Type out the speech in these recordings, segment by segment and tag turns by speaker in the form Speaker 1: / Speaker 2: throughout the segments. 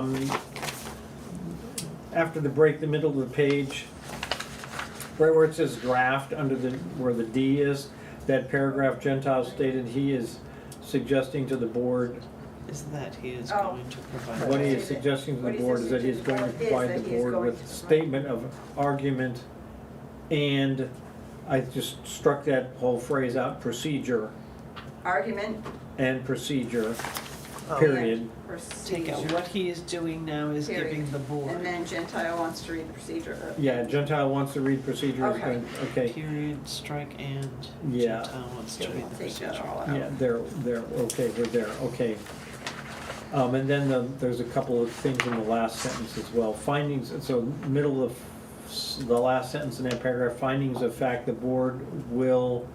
Speaker 1: Um, After the break, the middle of the page, right where it says draft, under the, where the D is, that paragraph Gentile stated he is suggesting to the board,
Speaker 2: is that he is
Speaker 3: Oh.
Speaker 2: going to
Speaker 1: what
Speaker 2: provide.
Speaker 1: he is suggesting to the
Speaker 3: What he's
Speaker 1: board is that he is going to
Speaker 3: suggesting to the board
Speaker 1: provide the
Speaker 3: is that he is
Speaker 1: board
Speaker 3: going
Speaker 1: with
Speaker 3: to-
Speaker 1: statement of argument and I just struck that whole phrase out, procedure
Speaker 3: Argument.
Speaker 1: and procedure,
Speaker 2: Oh.
Speaker 1: period.
Speaker 3: and
Speaker 2: Take
Speaker 3: Procedure.
Speaker 2: out, what he is doing now is
Speaker 3: Period.
Speaker 2: giving the
Speaker 3: And
Speaker 2: board,
Speaker 3: then Gentile wants to read the procedure. of-
Speaker 1: Yeah, Gentile wants to read procedure is
Speaker 3: Okay.
Speaker 1: going, okay.
Speaker 2: period, strike and,
Speaker 1: Yeah.
Speaker 2: Gentile wants to read the
Speaker 3: Take
Speaker 2: procedure.
Speaker 3: that all
Speaker 1: Yeah,
Speaker 3: out.
Speaker 1: they're, they're, okay, we're there, okay. Um, and then the- there's a couple of things in the last sentence as well. Findings, so middle of s- the last sentence in that paragraph, findings of fact, the board will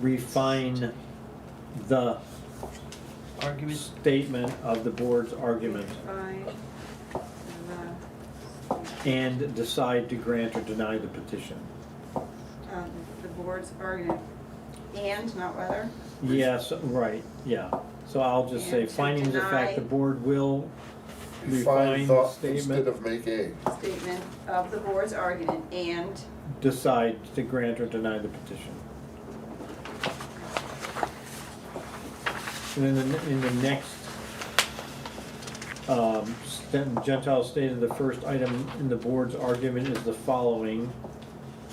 Speaker 1: refine the
Speaker 2: Argument,
Speaker 1: statement of the board's argument
Speaker 3: Fine. uh,
Speaker 1: and decide to grant or deny the petition.
Speaker 3: The, um, The board's argument, and not whether,
Speaker 1: Yes, right, yeah. So I'll just say
Speaker 3: And to
Speaker 1: findings of fact,
Speaker 3: deny-
Speaker 1: the board will refine
Speaker 4: Define
Speaker 1: the
Speaker 4: thought
Speaker 1: statement.
Speaker 4: instead of make a.
Speaker 3: statement of the board's argument, and
Speaker 1: decide to grant or deny the petition. And then the- in the next, um, sten- Gentile stated the first item in the board's argument is the following.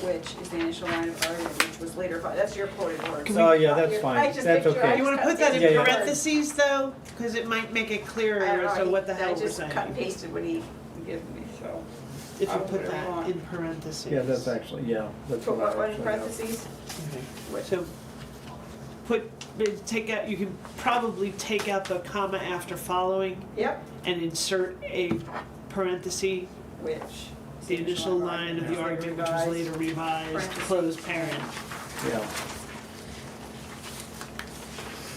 Speaker 3: which is the initial line of argument, which was later, but that's your quoted words.
Speaker 1: Oh, yeah, that's
Speaker 3: I
Speaker 1: fine,
Speaker 3: just
Speaker 1: that's
Speaker 3: picture- I
Speaker 1: okay.
Speaker 2: you wanna put that
Speaker 1: Yeah,
Speaker 2: in
Speaker 1: yeah.
Speaker 2: parentheses though, cause it might make it
Speaker 3: I
Speaker 2: clearer
Speaker 3: don't know,
Speaker 2: as to
Speaker 3: he-
Speaker 2: what the hell we're
Speaker 3: I just cut and
Speaker 2: saying.
Speaker 3: pasted what he gave me, so.
Speaker 2: If you
Speaker 3: I'll put
Speaker 2: put
Speaker 3: it
Speaker 2: that
Speaker 3: on.
Speaker 2: in parentheses.
Speaker 1: Yeah, that's actually, yeah, that's
Speaker 3: Put
Speaker 1: what
Speaker 3: what,
Speaker 1: I
Speaker 3: what Oh, in
Speaker 1: actually have.
Speaker 3: parentheses?
Speaker 2: Okay.
Speaker 3: What-
Speaker 2: So, put, uh, take out, you can probably take out the comma after following
Speaker 3: Yep,
Speaker 2: and insert a parenthesis
Speaker 3: which.
Speaker 2: The initial line of the
Speaker 3: is
Speaker 2: argument which was
Speaker 3: revised.
Speaker 2: later revised,
Speaker 3: Parentheses.
Speaker 2: closed parent.
Speaker 1: Yeah.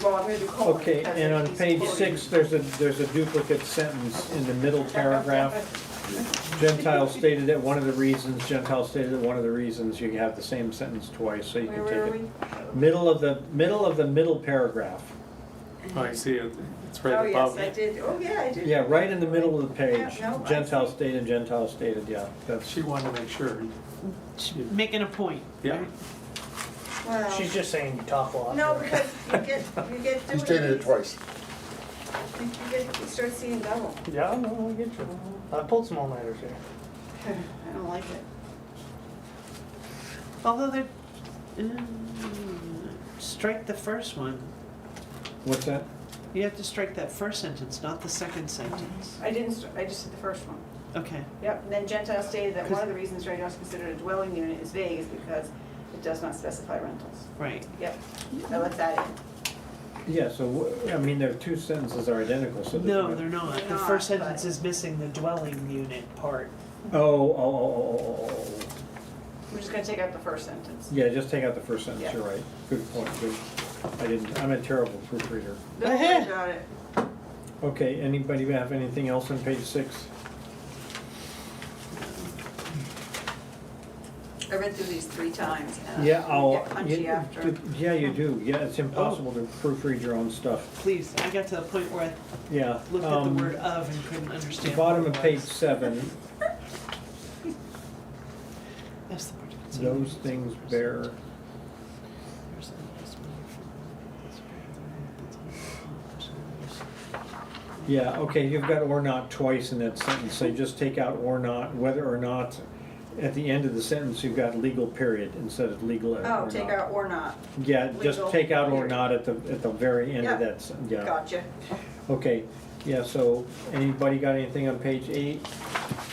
Speaker 3: Well, I'm gonna do colon.
Speaker 1: Okay,
Speaker 3: because
Speaker 1: and
Speaker 3: it
Speaker 1: on
Speaker 3: keeps
Speaker 1: page
Speaker 3: quoting.
Speaker 1: six, there's a, there's a duplicate sentence in the middle paragraph. Gentile stated that one of the reasons, Gentile stated that one of the reasons you have the same sentence twice, so you
Speaker 3: Where
Speaker 1: can
Speaker 3: were
Speaker 1: take
Speaker 3: we?
Speaker 1: it. Middle of the, middle of the middle paragraph.
Speaker 5: Oh, I see it. It's
Speaker 3: Oh,
Speaker 5: right
Speaker 3: yes,
Speaker 5: above
Speaker 3: I
Speaker 5: it.
Speaker 3: did, oh, yeah, I did.
Speaker 1: Yeah, right in the middle of the page.
Speaker 3: Yeah, no, I
Speaker 1: Gentile
Speaker 3: see.
Speaker 1: stated, Gentile stated, yeah, that's,
Speaker 5: She wanted to make sure.
Speaker 2: Making a point.
Speaker 5: Yeah.
Speaker 2: right?
Speaker 3: Well,
Speaker 6: She's just saying you talk a lot.
Speaker 3: no, because you get, you get doing.
Speaker 4: He stated it
Speaker 3: these,
Speaker 4: twice.
Speaker 3: You get, you start seeing double.
Speaker 6: Yeah, no, I get you. I pulled some all-nighters here.
Speaker 3: I don't like it.
Speaker 2: Although they're, mm, strike the first one.
Speaker 1: what's that?
Speaker 2: You have to strike that first sentence, not the second sentence.
Speaker 3: I didn't, start- I just did the first one.
Speaker 2: Okay.
Speaker 3: Yep, and then Gentile stated that one of the reasons Dragon is considered a dwelling unit is vague is because it does not specify rentals.
Speaker 2: Right.
Speaker 3: Yep, I left that in.
Speaker 1: Yeah, so, wh- I mean, there are two sentences are identical, so. there's
Speaker 2: No,
Speaker 1: no-
Speaker 2: they're not.
Speaker 3: They're
Speaker 2: The
Speaker 3: not,
Speaker 2: first
Speaker 3: but-
Speaker 2: sentence is missing the dwelling unit part.
Speaker 1: Oh, oh, oh, oh, oh, oh, oh.
Speaker 3: We're just gonna take out the first sentence.
Speaker 1: Yeah, just take out the first sentence,
Speaker 3: Yeah.
Speaker 1: you're right. Good point, good. I didn't, I'm a terrible proofreader.
Speaker 3: Don't worry about it.
Speaker 1: Okay, anybody have anything else on page six?
Speaker 3: I read through these three times and
Speaker 1: Yeah,
Speaker 3: I
Speaker 1: I'll.
Speaker 3: Uh, get punchy
Speaker 1: yeah,
Speaker 3: after.
Speaker 1: Yeah, you do, yeah, it's impossible to proofread your own stuff,
Speaker 2: Please, I got to the point where
Speaker 1: yeah.
Speaker 2: I looked at the
Speaker 1: um,
Speaker 2: word of and couldn't
Speaker 1: The
Speaker 2: understand.
Speaker 1: bottom
Speaker 2: what
Speaker 1: of
Speaker 2: it
Speaker 1: page
Speaker 2: was.
Speaker 1: seven,
Speaker 2: That's the part. that's-
Speaker 1: those things bear, yeah, okay, you've got or not twice in that sentence, so you just take out or not, whether or not. At the end of the sentence, you've got legal period instead of legal or
Speaker 3: Oh,
Speaker 1: not.
Speaker 3: take out or not.
Speaker 1: Yeah, just
Speaker 3: legal
Speaker 1: take out or
Speaker 3: period.
Speaker 1: not at the, at the very end
Speaker 3: Yeah.
Speaker 1: of that, sen- yeah.
Speaker 3: Gotcha.
Speaker 1: Okay, yeah, so anybody got anything on page eight?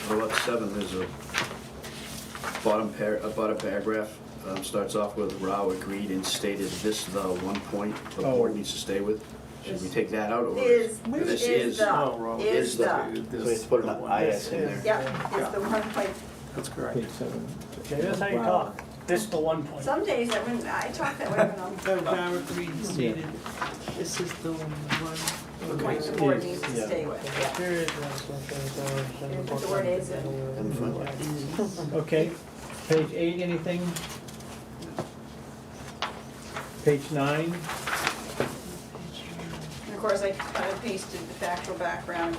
Speaker 7: What about seven, there's a bottom par, a bottom paragraph, um, starts off with Rao agreed and stated this the one point the
Speaker 1: Oh.
Speaker 7: board needs to stay with. Should we take that out or?
Speaker 3: Is,
Speaker 2: Where
Speaker 7: This
Speaker 3: is
Speaker 7: is,
Speaker 5: Oh,
Speaker 3: the,
Speaker 5: wrong.
Speaker 3: is
Speaker 7: Is the-
Speaker 3: the,
Speaker 7: so let's put an IS in there.
Speaker 3: yep, is the one point.
Speaker 5: That's correct.
Speaker 1: Page seven.
Speaker 6: Okay, that's how you
Speaker 1: Wow.
Speaker 6: talk. This is the one point.
Speaker 3: Some days I wouldn't, I talk that way when I'm,
Speaker 2: Oh, Bauer Green stated, this is the one.
Speaker 3: point the board needs to stay with, yeah.
Speaker 6: Here is one point.
Speaker 3: Here's what the word is in.
Speaker 7: And fine.
Speaker 1: Okay, page eight, anything? Page nine?
Speaker 3: And of course, I kind of pasted the factual background